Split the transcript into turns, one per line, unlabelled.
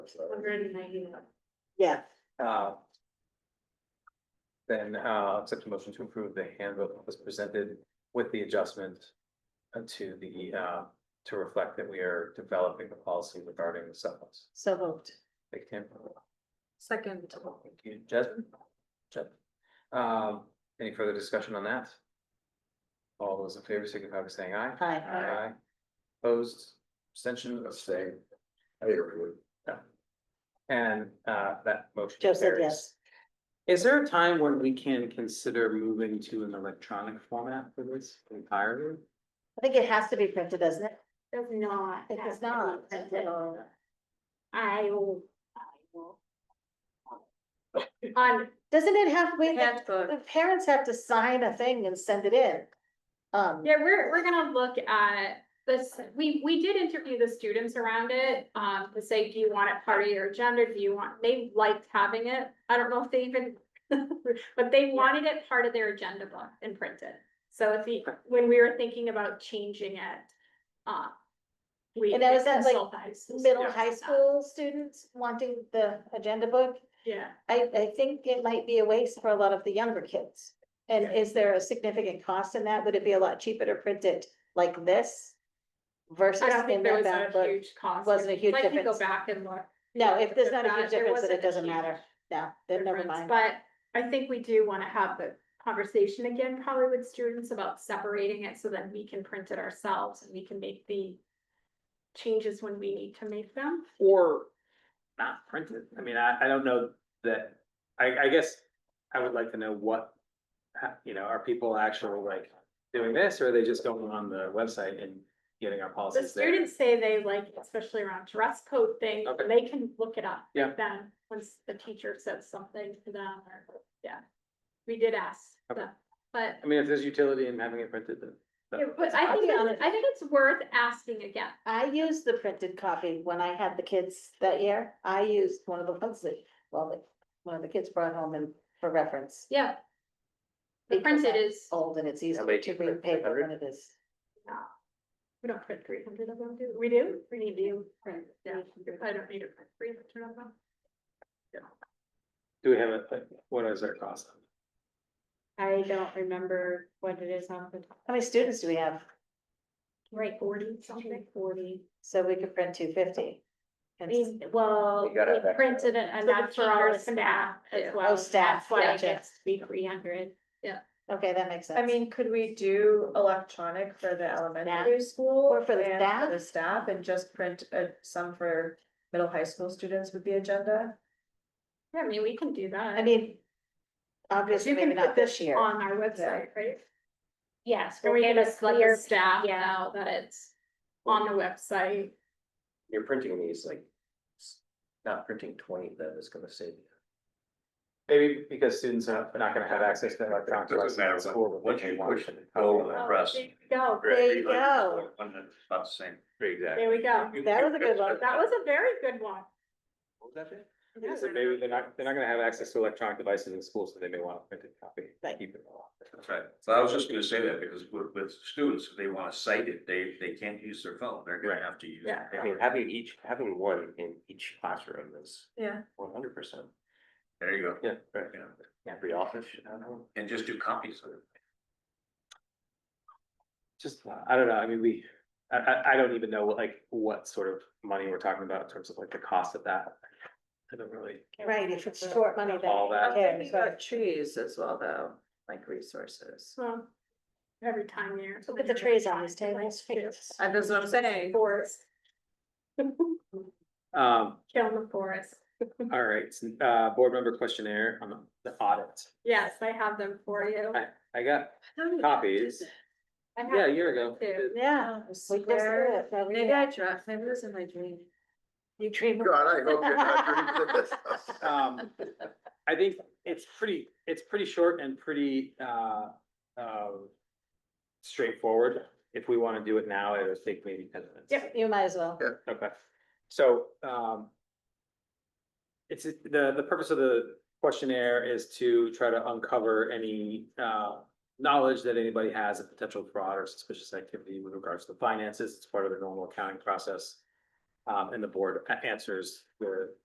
Hundred and ninety-one.
Yeah,
Uh, Then uh, accept a motion to approve the handbook as presented with the adjustment uh, to the, uh, to reflect that we are developing a policy regarding the supplements.
so moved.
Thank you, Tim.
Second.
Thank you, Jasmine. Jasmine. Um, Any further discussion on that? All those in favor signify by saying aye.
Hi,
Aye. Opposed, abstention, abstain.
I agree.
And uh, that motion.
Joe said
carries.
yes.
Is there a time when we can consider moving to an electronic format for this entirely?
I think it has to be printed, doesn't it?
Does not.
It
have to
does
be
not.
printed.
So-
I will. I will. On
Doesn't it have, we,
handbook.
the parents have to sign a thing and send it in? Um,
Yeah, we're, we're gonna look at this, we, we did interview the students around it, um, to say, do you want it part of your agenda, do you want, they liked having it. I don't know if they even, but they wanted it part of their agenda book and printed. So if the, when we were thinking about changing it, uh. we
And that was at, like,
consulted-
middle, high school students wanting the agenda book?
Yeah,
I, I think it might be a waste for a lot of the younger kids. And is there a significant cost in that? Would it be a lot cheaper to print it like this? Versus
I don't think
in
there
that
was a
book?
huge cost.
Wasn't a huge
Like, you Go
difference.
back and look.
No, if there's not a huge
There
difference, then
wasn't
it
a
doesn't
huge
matter. No, then never
difference,
mind.
But I think we do wanna have the conversation again, probably with students about separating it so that we can print it ourselves and we can make the. Changes when we need to make them.
Or not printed? I mean, I, I don't know that, I, I guess I would like to know what, ha- you know, are people actually like doing this or are they just going on the website and getting our
The
policies there?
students say they like, especially around dress code thing,
Okay.
they can look it up.
Yeah.
Then, once the teacher says something to them, or, yeah, we did ask
Okay.
them, but.
I mean, if there's utility in having it printed, then.
Yeah, But I
I'll
think,
be
it's-
honest.
I think it's worth asking again.
I used the printed copy when I had the kids that year. I used one of the ones that, well, that one of the kids brought home and for reference.
Yeah. The
Because
printed
I-
is,
Old and it's easier
make
to
it
read
print
paper
300?
than it is.
we don't print three hundred of them, do we? We do? We need to print. Yeah, I don't need to print three hundred of them.
Do we have a, like, what is our cost?
I don't remember what it is on the.
How many students do we have?
Right, forty something. Forty.
So we could print two fifty.
well,
We gotta have
we
that.
printed it enough for our staff as well.
Oh, staff,
That's why it
gotcha.
gets to be three hundred.
Okay, that makes sense.
I mean, could we do electronic for the elementary school?
Or for the
and
staff?
The staff and just print uh some for middle high school students with the agenda?
Yeah, I mean, we can do that.
I mean.
Because
Obviously,
you can
maybe not
put
this year.
On our website, right?
Yes.
Or
we'll
we
get
can
a
just let
clear-
the staff
yeah.
know that it's on the website.
You're printing these like, not printing twenty, that is gonna save you.
Maybe because students are not gonna have access to electronic.
Doesn't matter
devices at school, but they
what
can
you
watch
push
it.
go on.
Oh,
Press.
there you Go,
There you go.
One that's About the same. Exactly.
there we go.
That was a good one.
That was a very good one.
What was that, Jay?
Yeah, So maybe they're not, they're not gonna have access to electronic devices in school, so they may want a printed copy.
Right.
Keep it all.
That's right. So I was just gonna say that because with, with students, if they wanna cite it, they, they can't use their phone. They're gonna
Right.
have to use.
Yeah.
their
I mean,
camera.
having each, having one in each classroom is
Yeah.
one hundred percent.
There you go.
Yeah, right.
You know,
Every office should have one.
And just do copies of it.
Just, I don't know, I mean, we, I, I, I don't even know like what sort of money we're talking about in terms of like the cost of that. I don't really,
Right, if it's short money, then.
All
who
that.
Thinking
cares, right?
about trees as well, though, like resources.
So every time you're.
Look at the trees on these tables.
And that's what I'm saying.
Forest,
um,
kill the forest.
all right, uh, board member questionnaire on the audit.
Yes, I have them for you.
I, I got copies,
I
yeah,
have
a year ago.
two.
Yeah.
Oh, I
We just do
swear.
it. No, we
Maybe
don't.
I dropped, maybe it was in my dream.
You dream. of-
God, I hope you're not dreaming of this.
Um, I think it's pretty, it's pretty short and pretty, uh, um, straightforward. If we want to do it now, it would take maybe ten minutes.
Yep.
You might as well.
Okay, so, um, it's, the, the purpose of the questionnaire is to try to uncover any, uh, knowledge that anybody has of potential fraud or suspicious activity with regards to finances. It's part of the normal accounting process. Um, and the board a- answers the